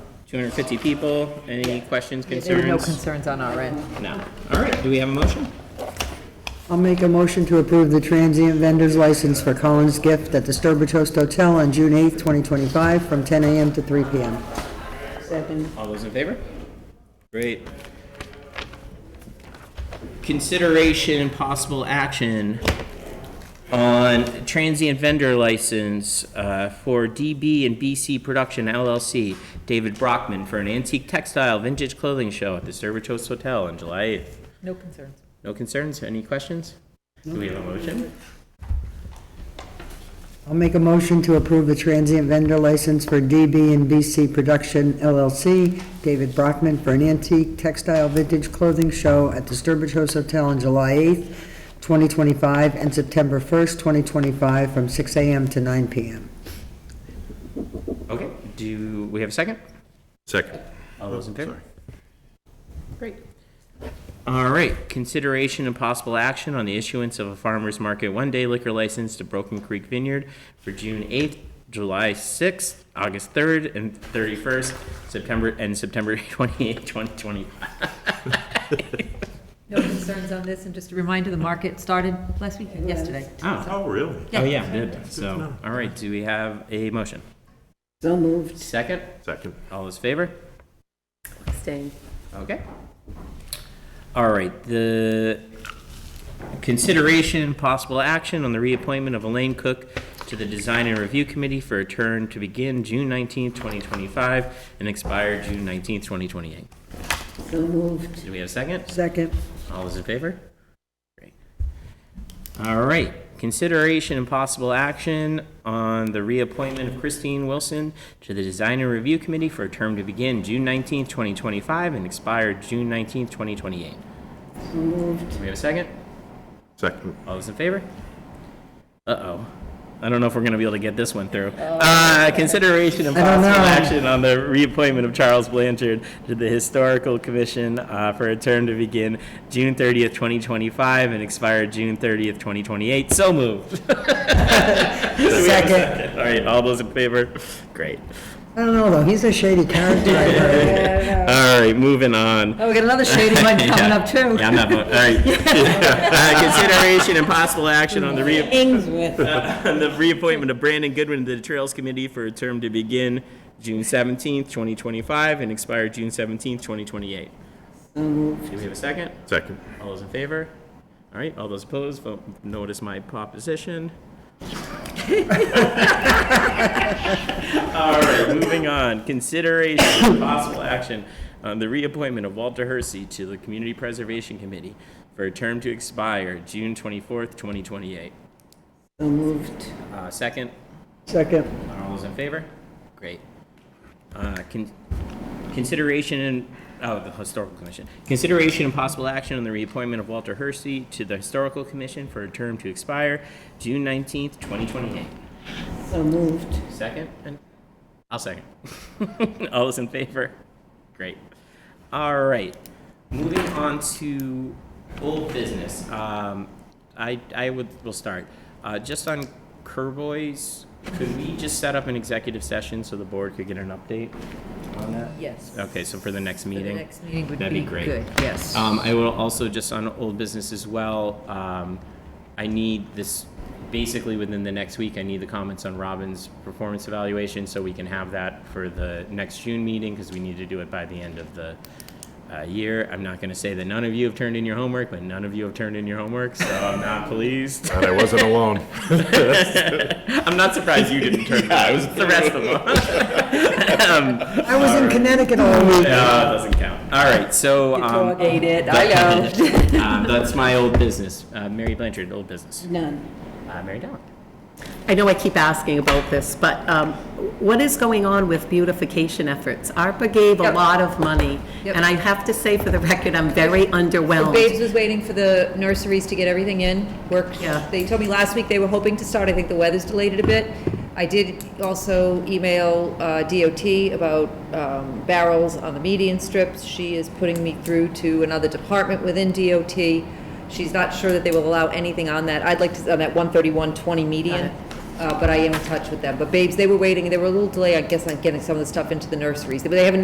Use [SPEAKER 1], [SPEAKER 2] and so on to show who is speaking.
[SPEAKER 1] 250 people. Any questions,
[SPEAKER 2] There were no
[SPEAKER 1] concerns?
[SPEAKER 2] concerns on our end.
[SPEAKER 1] No. All right, do we have a motion?
[SPEAKER 3] I'll make a motion to approve the transient vendor's license for Collins Gift at the Sturbridge Host Hotel on June 8th, 2025, from 10 a.m. to 3 p.m.
[SPEAKER 1] All those in favor? Great. Consideration and possible action on transient vendor license uh, for DB and BC Production LLC, David Brockman, for an antique textile vintage clothing show at the Sturbridge Host Hotel on July 8th.
[SPEAKER 2] No concerns.
[SPEAKER 1] No concerns? Any questions? Do we have a motion?
[SPEAKER 3] I'll make a motion to approve the transient vendor license for DB and BC Production LLC, David Brockman, for an antique textile vintage clothing show at the Sturbridge Host Hotel on July 8th, 2025, and September 1st, 2025, from 6 a.m. to 9 p.m.
[SPEAKER 1] Okay, do we have a second?
[SPEAKER 4] Second.
[SPEAKER 1] All those in favor?
[SPEAKER 4] Sorry.
[SPEAKER 2] Great.
[SPEAKER 1] All right, consideration and possible action on the issuance of a farmer's market one-day liquor license to Broken Creek Vineyard for June 8th, July 6th, August 3rd, and 31st, September, and September 28th, 2025.
[SPEAKER 2] No concerns on this, and just a reminder, the market started last week, yesterday.
[SPEAKER 1] Oh,
[SPEAKER 4] Oh, really?
[SPEAKER 1] oh yeah, it did. So, all right, do we have a motion?
[SPEAKER 3] So moved.
[SPEAKER 1] Second,
[SPEAKER 4] Second.
[SPEAKER 1] all those favor?
[SPEAKER 5] Abstain.
[SPEAKER 1] Okay. All right, the consideration and possible action on the reappointment of Elaine Cook to the Design and Review Committee for a term to begin June nineteenth, twenty twenty-five, and expire June nineteenth, twenty twenty-eight.
[SPEAKER 3] So moved.
[SPEAKER 1] Do we have a second?
[SPEAKER 3] Second.
[SPEAKER 1] All those in favor? Great. All right, consideration and possible action on the reappointment of Christine Wilson to the Design and Review Committee for a term to begin June nineteenth, twenty twenty-five, and expire June nineteenth, twenty twenty-eight. Do we have a second?
[SPEAKER 4] Second.
[SPEAKER 1] All those in favor? Uh-oh. I don't know if we're gonna be able to get this one through. Uh, consideration and
[SPEAKER 3] I don't
[SPEAKER 1] possible
[SPEAKER 3] know.
[SPEAKER 1] action on the reappointment of Charles Blanchard to the Historical Commission, uh, for a term to begin June thirtieth, twenty twenty-five and expire June thirtieth, twenty twenty-eight. So moved. Do we have a All right, all those in favor? Great.
[SPEAKER 3] I don't know, though, he's a shady character. I heard.
[SPEAKER 1] All right, moving on.
[SPEAKER 2] Oh, we got another shady one coming up, too.
[SPEAKER 1] Yeah, I'm not voting. All right. Uh, Consideration and possible action on the rea- Uh, on the reappointment of Brandon Goodwin to the Trails Committee for a term to begin June seventeenth, twenty twenty-five, and expire June seventeenth, twenty twenty-eight. Do we have a second?
[SPEAKER 4] Second.
[SPEAKER 1] All those in favor? All right, all those opposed, vote, notice my proposition. All right, moving on, consideration and possible action on the reappointment of Walter Hersey to the Community Preservation Committee for a term to expire June twenty-fourth, twenty twenty-eight.
[SPEAKER 3] So moved.
[SPEAKER 1] Uh, second,
[SPEAKER 3] Second.
[SPEAKER 1] all those in favor? Great. Uh, con- Consideration and, oh, the Historical Commission. Consideration and possible action on the reappointment of Walter Hersey to the Historical Commission for a term to expire June nineteenth, twenty twenty-eight.
[SPEAKER 3] So moved.
[SPEAKER 1] Second, and, I'll second. All those in favor? Great. All right, moving on to old business. Um, I, I would, we'll start. Uh, just on Kerboys, could we just set up an executive session so the board could get an update on that?
[SPEAKER 2] Yes.
[SPEAKER 1] Okay, so for the next
[SPEAKER 2] For
[SPEAKER 1] meeting?
[SPEAKER 2] the next meeting would be
[SPEAKER 1] That'd be great.
[SPEAKER 2] good, yes.
[SPEAKER 1] Um, I will also, just on old business as well, um, I need this, basically within the next week, I need the comments on Robin's performance evaluation, so we can have that for the next June meeting, because we need to do it by the end of the, uh, year. I'm not gonna say that none of you have turned in your homework, but none of you have turned in your homework, so I'm not pleased.
[SPEAKER 4] And I wasn't alone.
[SPEAKER 1] I'm not surprised you didn't turn it in, it was the rest of Um, them.
[SPEAKER 3] I was in Connecticut all
[SPEAKER 1] No,
[SPEAKER 3] week.
[SPEAKER 1] it doesn't count. All right, so, um,
[SPEAKER 2] Ate it, I know.
[SPEAKER 1] um, that's my old business. Uh, Mary Blanchard, old business.
[SPEAKER 5] None.
[SPEAKER 1] Uh, Mary Dowling.
[SPEAKER 5] I know I keep asking about this, but um, what is going on with beautification efforts? ARPA gave a
[SPEAKER 2] Yep.
[SPEAKER 5] lot of money,
[SPEAKER 2] Yep.
[SPEAKER 5] and I have to say for the record, I'm very
[SPEAKER 6] Babes
[SPEAKER 5] underwhelmed.
[SPEAKER 6] was waiting for the nurseries to get everything in, work.
[SPEAKER 5] Yeah.
[SPEAKER 6] They told me last week they were hoping to start, I think the weather's delayed it a bit. I did also email uh, DOT about um, barrels on the median strips. She is putting me through to another department within DOT. She's not sure that they will allow anything on that, I'd like to, on that 13120 median, uh, but I am in touch with them. But Babes, they were waiting, they were a little delayed, I guess, on getting some of the stuff into the nurseries, but they haven't